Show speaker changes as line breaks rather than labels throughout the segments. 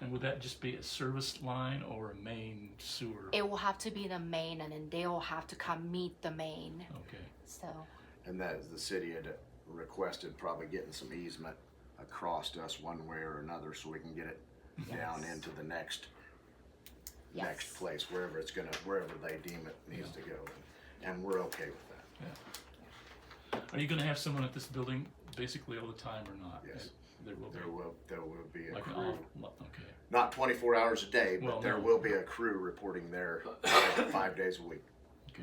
And would that just be a service line or a main sewer?
It will have to be the main, and then they will have to come meet the main.
Okay,
So
And that is the city had requested probably getting some easement across to us one way or another so we can get it down
Yes.
into the next,
Yes.
next place, wherever it's gonna, wherever they deem it needs to go. And we're okay with
yeah.
that.
Are you gonna have someone at this building basically all the time or not?
Yes.
There will
There
be,
will, there will be a
like an
crew,
off, okay.
not twenty-four hours a day,
Well,
but there
no.
will be a crew reporting there five days a week.
Okay,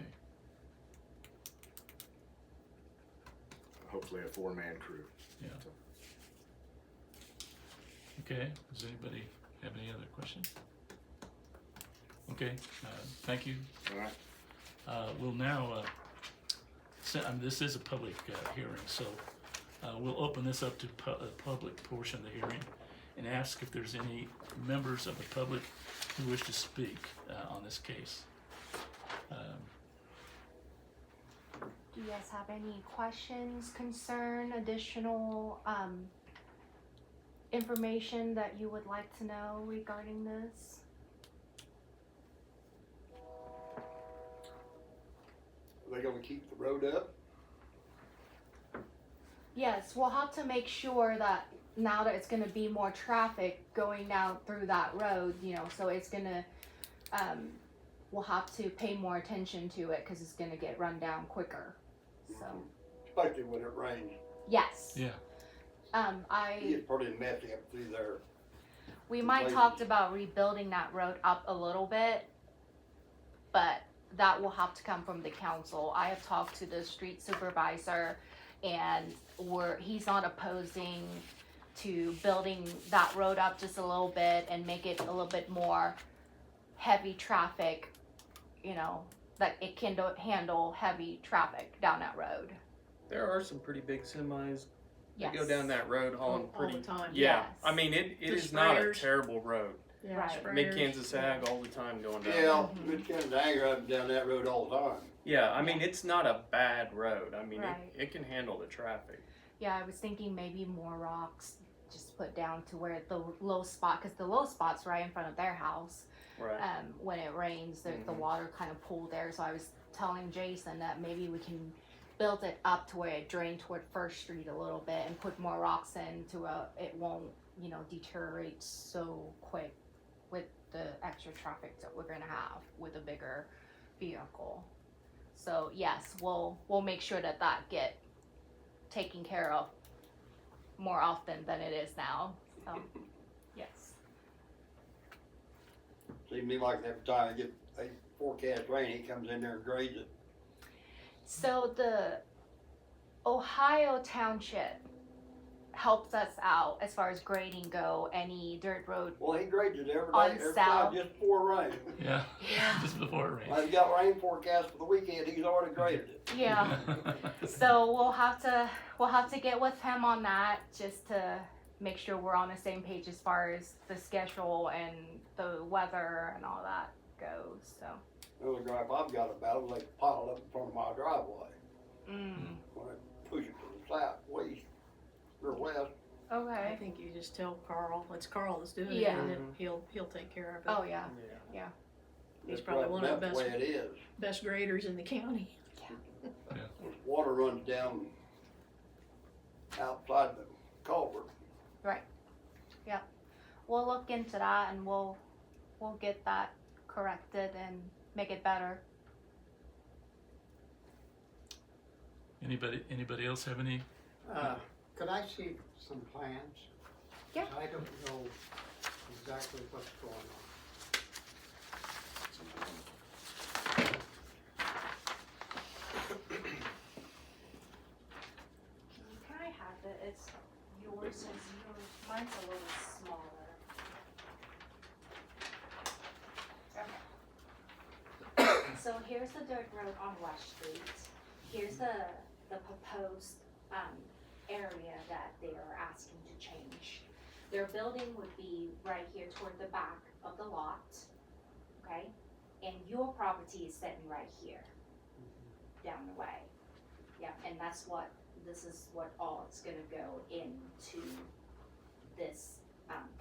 Hopefully a four-man crew.
yeah. Okay, does anybody have any other questions? Okay, uh, thank you.
All right,
Uh, we'll now, uh, se- um, this is a public, uh, hearing, so, uh, we'll open this up to pu- the public portion of the hearing and ask if there's any members of the public who wish to speak, uh, on this case. Um,
Do you guys have any questions, concern, additional um, information that you would like to know regarding this?
Are they gonna keep the road up?
Yes, we'll have to make sure that now that it's going to be more traffic going down through that road, you know, so it's going to, um, we'll have to pay more attention to it because it's going to get run down quicker. So,
Especially when it rains.
yes.
Yeah.
Um, I.
It's pretty messy up through there.
We
the
might
lighting.
talked about rebuilding that road up a little bit, but that will have to come from the council. I have talked to the street supervisor and we're, he's not opposing to building that road up just a little bit and make it a little bit more heavy traffic, you know, that it can do- handle heavy traffic down that road.
There are some pretty big semis
Yes.
that go down that road hauling
all, all
pretty.
the time.
Yeah,
Yes.
I mean it. It
The
is not a
sprayers.
terrible road.
Yeah,
Right.
sprayers.
Mid Kansas Ag all the time going down.
Yeah,
Mm-hmm.
it comes to anger up and down that road all the time.
Yeah, I mean it's not a bad road. I mean
Right.
it, it can handle the traffic.
Yeah, I was thinking maybe more rocks just put down to where the low spot, because the low spot's right in front of their house.
Uh,
Right.
Um, when it rains, the, the
Mhm.
water kind of pool there. So I was telling Jason that maybe we can build it up to where it drained toward First Street a little bit and put more rocks in to uh, it won't, you know, deteriorate so quick with the extra traffic that we're gonna have with a bigger vehicle. So yes, we'll we'll make sure that that get taken care of more often than it is now. So yes.
Seems to me like every time I get, they forecast rain, he comes in there and grades it.
So the Ohio Township helps us out as far as grading go, any dirt road.
Well, he grades it every
On
day, every
South.
time, just before rain.
Yeah,
Yeah.
just before it rains.
I've got rain forecast for the weekend, he's already graded it.
Yeah. so we'll have to we'll have to get with him on that just to make sure we're on the same page as far as the schedule and the weather and all that goes. So
Another gripe I've got about it, like piled up in front of my driveway.
mm.
When I push it to the south, west, or west,
I
okay.
think you just tell Carl, it's Carl that's doing it,
Yeah.
and then he'll, he'll take care of it.
Oh yeah.
yeah.
He's
that's
probably one
right,
of the
that's the
best,
way it is.
best graders in the county.
water runs down outside the culvert.
We'll look into that and we'll we'll get that corrected and make it better.
Anybody, anybody else have any?
Uh, Could I see some plans?
Yeah.
I don't know exactly what's going on.
Can I have it? It's yours is yours. Mine's a little smaller. Okay. So here's the dirt road on West Street. Here's the, the proposed, um, area that they are asking to change. Their building would be right here toward the back of the lot, okay? And your property is sitting right here, down the way. Yeah, and that's what this is what all it's gonna go into this, um,